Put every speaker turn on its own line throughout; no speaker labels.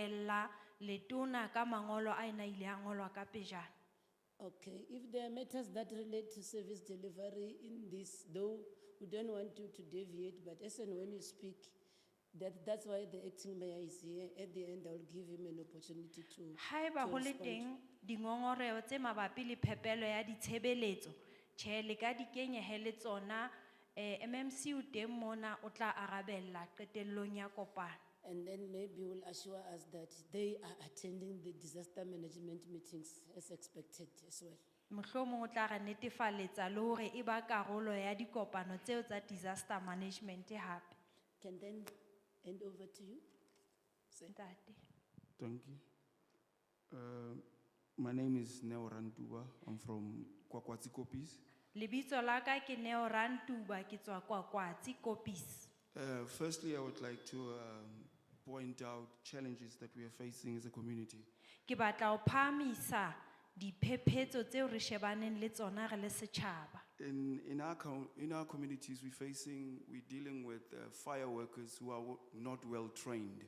latella letona ka mangolo a ena ile a ngolwa ka pejana
Okay, if there are matters that relate to service delivery in this, though we don't want you to deviate, but as and when you speak, that, that's why the acting mayor is here. At the end, I'll give him an opportunity to.
haeba
to
ho le
respond.
teng dingongoreo tse mabapi le phepelo ya ditshebeletso tjhe le ka di kenyehe le tsona um mmc o teng mona o tla arabella qetellong ya kopano
And then maybe will assure us that they are attending the disaster management meetings as expected as well.
mohlomong o tla re netefaletsa le hore e ba karolo ya dikopano tseo tsa disaster management hape
Can then hand over to you. Sir.
ntate
Thank you. Uh, my name is Neo Randuba. I'm from Kwakwatsi Kopis.
lebitso la ka ke neo rantuba ke tswa kwakwatsi kopisi
Uh, firstly, I would like to um, point out challenges that we are facing as a community.
ke batla ho phahamisa diphephetso tseo re shebaneng le tsona re le setjhaba
In, in, our, com- in our communities, we're facing, we're dealing with uh, fire workers who are w- not well trained.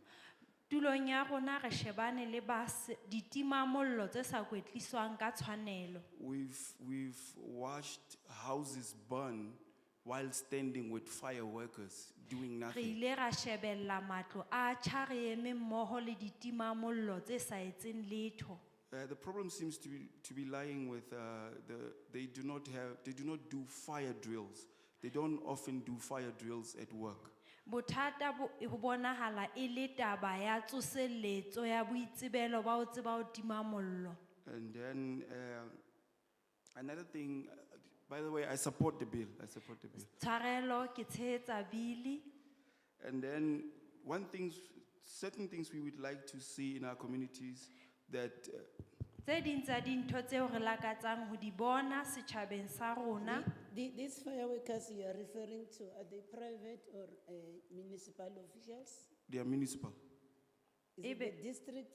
tulong ya rona re shebane le bas ditimamollo tse sa kwetliswang ka tshwanelo
We've, we've watched houses burn while standing with fire workers doing
re
nothing.
ile ra shebella matlo a tjha re eme mmoho le ditimamollo tse sa etseng letho
Uh, the problem seems to be, to be lying with uh, the, they do not have, they do not do fire drills. They don't often do fire drills at work.
bothata bo e- ho bonahala e le taba ya tsoseletso ya boitsebelo ba ho tseba ho tima mollo
And then uh, another thing, uh, by the way, I support the bill. I support the bill.
tshwarelo ke tshehetsa bili
And then one thing, certain things we would like to see in our communities that uh,
tse ding tsa dintho tseo re lakatsang ho di bona setjhabeng sa rona
The- These fire workers you are referring to, are they private or uh, municipal officials?
they are municipal,
Is it the
Ebe-
district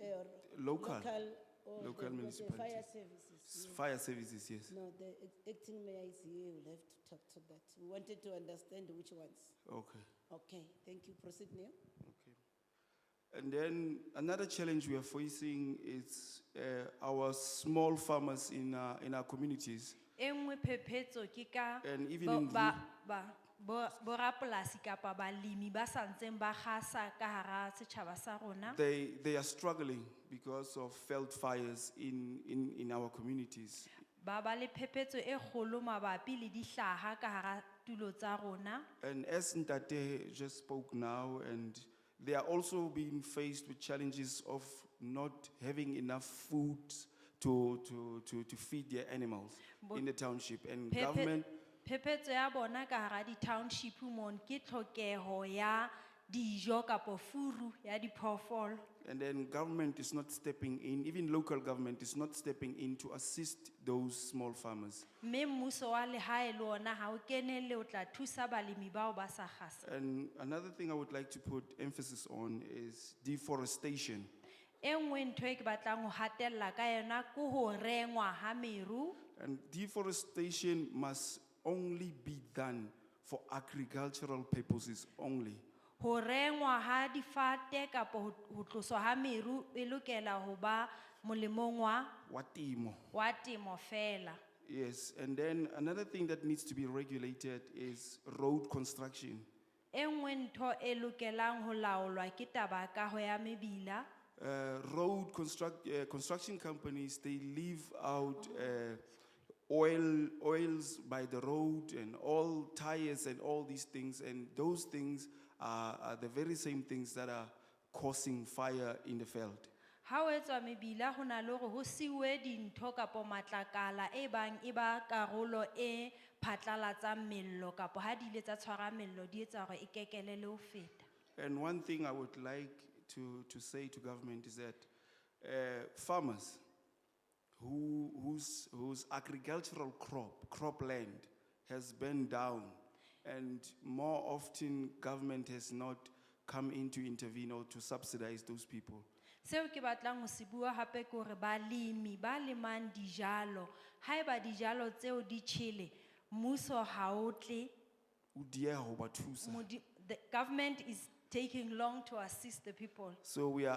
uh, or
Local.
local or the-
Local
or the fire
municipalities.
services?
fire services, yes.
No, the ac- acting mayor is here, we'll have to talk to that. We wanted to understand which ones.
Okay.
Okay, thank you, proceed Neo.
Okay. And then another challenge we are facing is uh, our small farmers in our, in our communities.
e nngwe phephetso ke ka
And even
bo-
in
ba- ba- bo- borapolasi kapa balemi ba sa ntseng ba gasa ka hara setjhaba sa rona
They, they are struggling because of failed fires in, in, in our communities.
ba ba le phephetso e kgolo mabapi le dihlaha ka hara tulo tsa rona
And as Ntate just spoke now, and they are also being faced with challenges of not having enough food to, to, to, to feed their animals
Bo-
in the township. And
Phephe-
government,
phephetso ya bona ka hara di-township mon ke tlhokeho ya dijo kapo furu ya diphoofolo
And then government is not stepping in, even local government is not stepping in to assist those small farmers.
mme mmuso wa lehae le ona ha o kenelle o tla thusa balemi bao ba sa gasa
And another thing I would like to put emphasis on is deforestation.
e nngwe ntho e ke batlang ho hatella ka yona ke ho rengwa ha meru
And deforestation must only be done for agricultural purposes only.
ho rengwa ha difate kapo ho- ho tloswa ha meru e lokela ho ba molemong wa
Watimo.
wa temo fela
Yes, and then another thing that needs to be regulated is road construction.
e nngwe ntho e lokelang ho laolwa ke taba ya kaho ya mebila
uh, road construct, uh, construction companies, they leave out uh, oil, oils by the road and all tires and all these things. And those things are, are the very same things that are causing fire in the field.
ha o etswa mebila ho na le hore ho siuwe dintho kapo matlakala e bang e ba karolo e phatlalatsang mello kapo ha di ile tsa tshwara mello di etsa hore e kekelele ho feta
And one thing I would like to, to say to government is that uh, farmers who, whose, whose agricultural crop, cropland, has been down, and more often government has not come in to intervene or to subsidize those people.
seo ke batlang ho se bua hape ke hore balemi ba lemang dijalo haeba dijalo tseo di tjhele mmuso ha o tle
O dieha ho ba thusa.
modi- the government is taking long to assist the people.
So we are